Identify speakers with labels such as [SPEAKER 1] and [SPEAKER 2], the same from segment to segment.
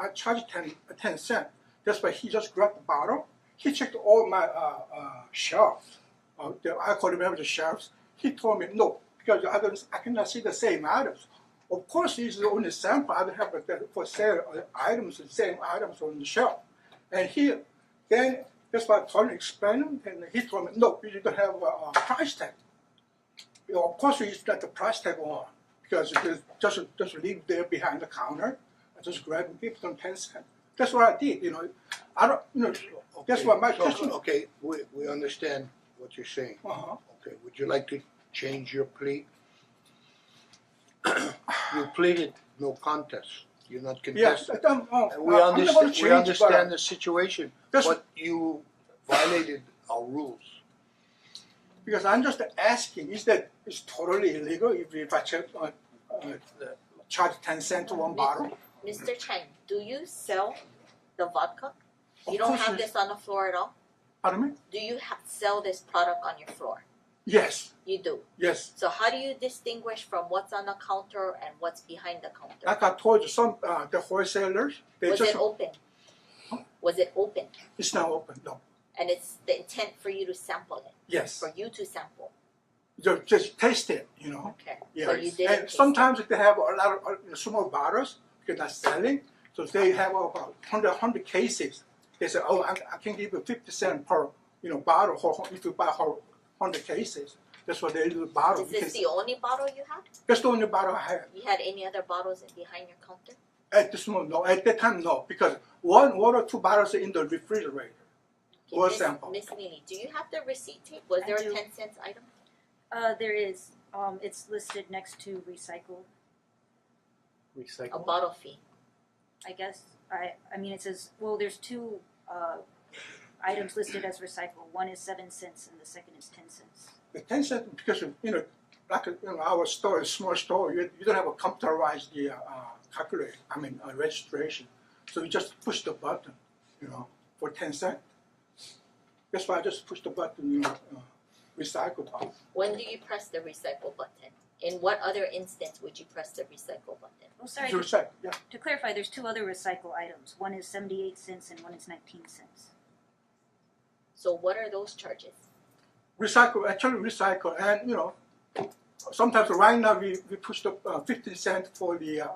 [SPEAKER 1] I charged 10, 10 cent. That's why he just grabbed the bottle. He checked all my uh, uh, shelves. Uh, the, I could remember the shelves. He told me, no, because I, don't, I cannot see the same items. Of course, this is only sample. I don't have the, for sale uh, items, the same items on the shelf. And he, then, that's why I told him, explain him, and he told me, no, you don't have a, a price tag. You know, of course, you got the price tag on because it is- just just leave there behind the counter. I just grab and give them ten cents. That's what I did. You know, I don't. You know, that's what my
[SPEAKER 2] Okay, so-
[SPEAKER 1] question.
[SPEAKER 2] Okay, we, we understand what you're saying.
[SPEAKER 1] Uh-huh.
[SPEAKER 2] Okay, would you like to change your plea? You pleaded no contest, you're not
[SPEAKER 1] Yes,
[SPEAKER 2] contesting.
[SPEAKER 1] I don't. Oh,
[SPEAKER 2] And we
[SPEAKER 1] I'm not going
[SPEAKER 2] understand,
[SPEAKER 1] to
[SPEAKER 2] we
[SPEAKER 1] change.
[SPEAKER 2] understand the situation,
[SPEAKER 1] That's-
[SPEAKER 2] but you violated our rules.
[SPEAKER 1] but, because I'm just asking. Is that it's totally illegal if, if I charge, uh, uh, charge ten cent to one bottle?
[SPEAKER 3] Mr. Chen, do you sell the vodka?
[SPEAKER 1] Of
[SPEAKER 3] You don't
[SPEAKER 1] course
[SPEAKER 3] have
[SPEAKER 1] it-
[SPEAKER 3] this on the floor at all?
[SPEAKER 1] Pardon me?
[SPEAKER 3] Do you ha- sell this product on your floor?
[SPEAKER 1] Yes,
[SPEAKER 3] You do.
[SPEAKER 1] yes.
[SPEAKER 3] So how do you distinguish from what's on the counter and what's behind the counter?
[SPEAKER 1] Like I told you, some uh, the wholesalers Ah, they
[SPEAKER 3] Was
[SPEAKER 1] just
[SPEAKER 3] it open? Was it open?
[SPEAKER 1] it's not open. No.
[SPEAKER 3] And it's the intent for you to sample it,
[SPEAKER 1] Yes,
[SPEAKER 3] for you to sample.
[SPEAKER 1] just, just taste it. You know.
[SPEAKER 3] Okay. So you
[SPEAKER 1] Yes,
[SPEAKER 3] didn't.
[SPEAKER 1] and
[SPEAKER 3] taste it.
[SPEAKER 1] sometimes they have a lot of uh, small bottles because they're selling. So they have about 100, 100 cases. They say, oh, I, I can give you 50 cent per you know bottle or if you buy whole 100 cases. That's what they do bottle.
[SPEAKER 3] Is
[SPEAKER 1] You
[SPEAKER 3] this
[SPEAKER 1] can-
[SPEAKER 3] the only bottle you had?
[SPEAKER 1] that's the only bottle I have.
[SPEAKER 3] You had any other bottles in- behind your counter?
[SPEAKER 1] At this moment, no. At that time, no. Because one, one or two bottles are in the refrigerator.
[SPEAKER 3] Okay,
[SPEAKER 1] Or
[SPEAKER 3] Miss-
[SPEAKER 1] sample.
[SPEAKER 3] Miss Nini, do you have the receipt tape? Was
[SPEAKER 4] I
[SPEAKER 3] there a
[SPEAKER 4] do.
[SPEAKER 3] ten cents item?
[SPEAKER 4] Uh, there is, um, it's listed next to recycle,
[SPEAKER 3] A
[SPEAKER 5] Recycle.
[SPEAKER 3] bottle fee.
[SPEAKER 4] I guess, I, I mean, it says, well, there's two, uh, items listed as recycle, one is seven cents and the second is ten cents.
[SPEAKER 1] The 10 cent, because, you know, like you know, our store is small store, you, you don't have a computerized the, uh, calculator, I mean, uh, registration. So you just push the button, you know, for 10 cent. That's why I just push the button, you know, uh, recycle button.
[SPEAKER 3] When do you press the recycle button? In what other instance would you press the recycle button?
[SPEAKER 4] Oh, sorry,
[SPEAKER 1] To
[SPEAKER 4] to-
[SPEAKER 1] recycle, yeah.
[SPEAKER 4] to clarify, there's two other recycle items, one is seventy-eight cents and one is nineteen cents.
[SPEAKER 3] So what are those charges?
[SPEAKER 1] Recycle, actually recycle, and, you know, sometimes right now we, we push the uh, 15 cent for the, uh,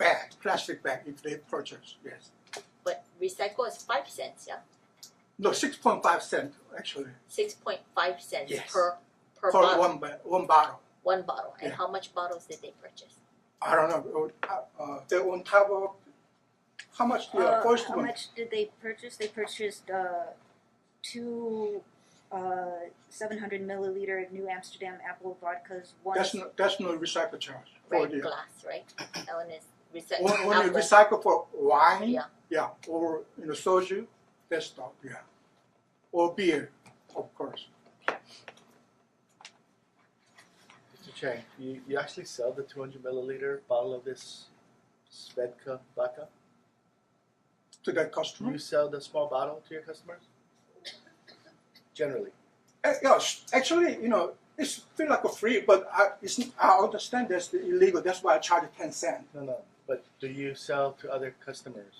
[SPEAKER 1] bag, plastic bag if they purchase, yes.
[SPEAKER 3] But recycle is five cents, yeah?
[SPEAKER 1] No, 6.5 cent, actually,
[SPEAKER 3] Six point five cents
[SPEAKER 1] Yes.
[SPEAKER 3] per per
[SPEAKER 1] for
[SPEAKER 3] bottle.
[SPEAKER 1] one, ba- one bottle.
[SPEAKER 3] One bottle. And
[SPEAKER 1] Yeah.
[SPEAKER 3] how much bottles did they purchase?
[SPEAKER 1] I don't know. Uh, uh, they're on top of how much the
[SPEAKER 4] Uh,
[SPEAKER 1] first
[SPEAKER 4] how
[SPEAKER 1] one?
[SPEAKER 4] much did they purchase? They purchased uh, two uh, 700 milliliter New Amsterdam apple vodkas. One
[SPEAKER 1] That's no, that's no recycle charge for
[SPEAKER 3] Right,
[SPEAKER 1] the
[SPEAKER 3] glass, right? Ellen is recycle.
[SPEAKER 1] on- only
[SPEAKER 3] apple.
[SPEAKER 1] recycle for wine,
[SPEAKER 3] Yeah.
[SPEAKER 1] yeah, or you know soju, that's stuff, yeah, or beer, of course.
[SPEAKER 5] Mr. Chang, you, you actually sell the 200 milliliter bottle of this Svedka vodka?
[SPEAKER 1] To that
[SPEAKER 5] Do
[SPEAKER 1] customer,
[SPEAKER 5] you sell the small bottle to your customers? Generally.
[SPEAKER 1] Uh, yeah, s- actually, you know, it's feel like a free, but I, it's, I understand that's the illegal. That's why I charge ten cent.
[SPEAKER 5] No, no. But do you sell to other customers?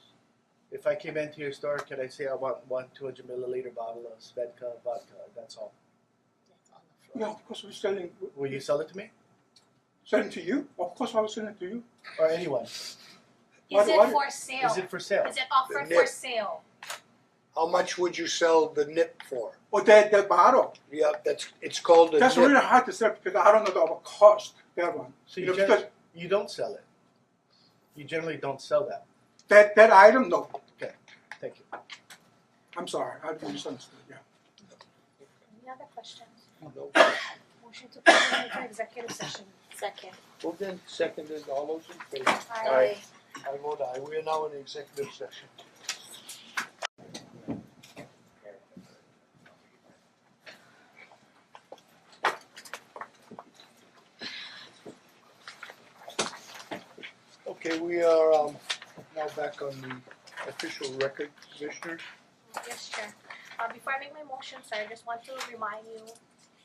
[SPEAKER 5] If I came into your store, could I say I want one 200 milliliter bottle of Svedka vodka? That's all.
[SPEAKER 3] That's on the
[SPEAKER 1] Yeah,
[SPEAKER 3] floor.
[SPEAKER 1] of course, we're selling
[SPEAKER 5] Will you sell it to me
[SPEAKER 1] selling to you. Of course, I was selling to you.
[SPEAKER 5] or anyone?
[SPEAKER 1] What-
[SPEAKER 6] Is it
[SPEAKER 1] what-
[SPEAKER 6] for sale?
[SPEAKER 5] Is it for sale?
[SPEAKER 6] Is it offered
[SPEAKER 2] The
[SPEAKER 6] for
[SPEAKER 2] nip.
[SPEAKER 6] sale?
[SPEAKER 2] How much would you sell the nip for?
[SPEAKER 1] Or that that bottle.
[SPEAKER 2] Yeah, that's, it's called a
[SPEAKER 1] That's really
[SPEAKER 2] nip.
[SPEAKER 1] hard to sell because I don't know the cost. That one,
[SPEAKER 5] So
[SPEAKER 1] you
[SPEAKER 5] you,
[SPEAKER 1] know,
[SPEAKER 5] gen-
[SPEAKER 1] because
[SPEAKER 5] you don't sell it. You generally don't sell that.
[SPEAKER 1] that that item, no.
[SPEAKER 5] Thank you.
[SPEAKER 1] I'm sorry, I misunderstood. Yeah.
[SPEAKER 6] Any other questions?
[SPEAKER 2] No.
[SPEAKER 6] Motion to convene into executive session.
[SPEAKER 3] Second.
[SPEAKER 2] Moved and seconded, all those in favor?
[SPEAKER 5] Aye.
[SPEAKER 2] I vote aye, we are now in executive session. Okay, we are um now back on the official record, commissioners.
[SPEAKER 6] Yes, Chair. Uh, before I make my motion, sir, I just want to remind you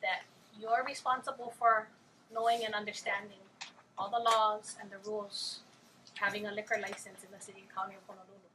[SPEAKER 6] that you're responsible for knowing and understanding all the laws and the rules having a liquor license in the city and county of Honolulu.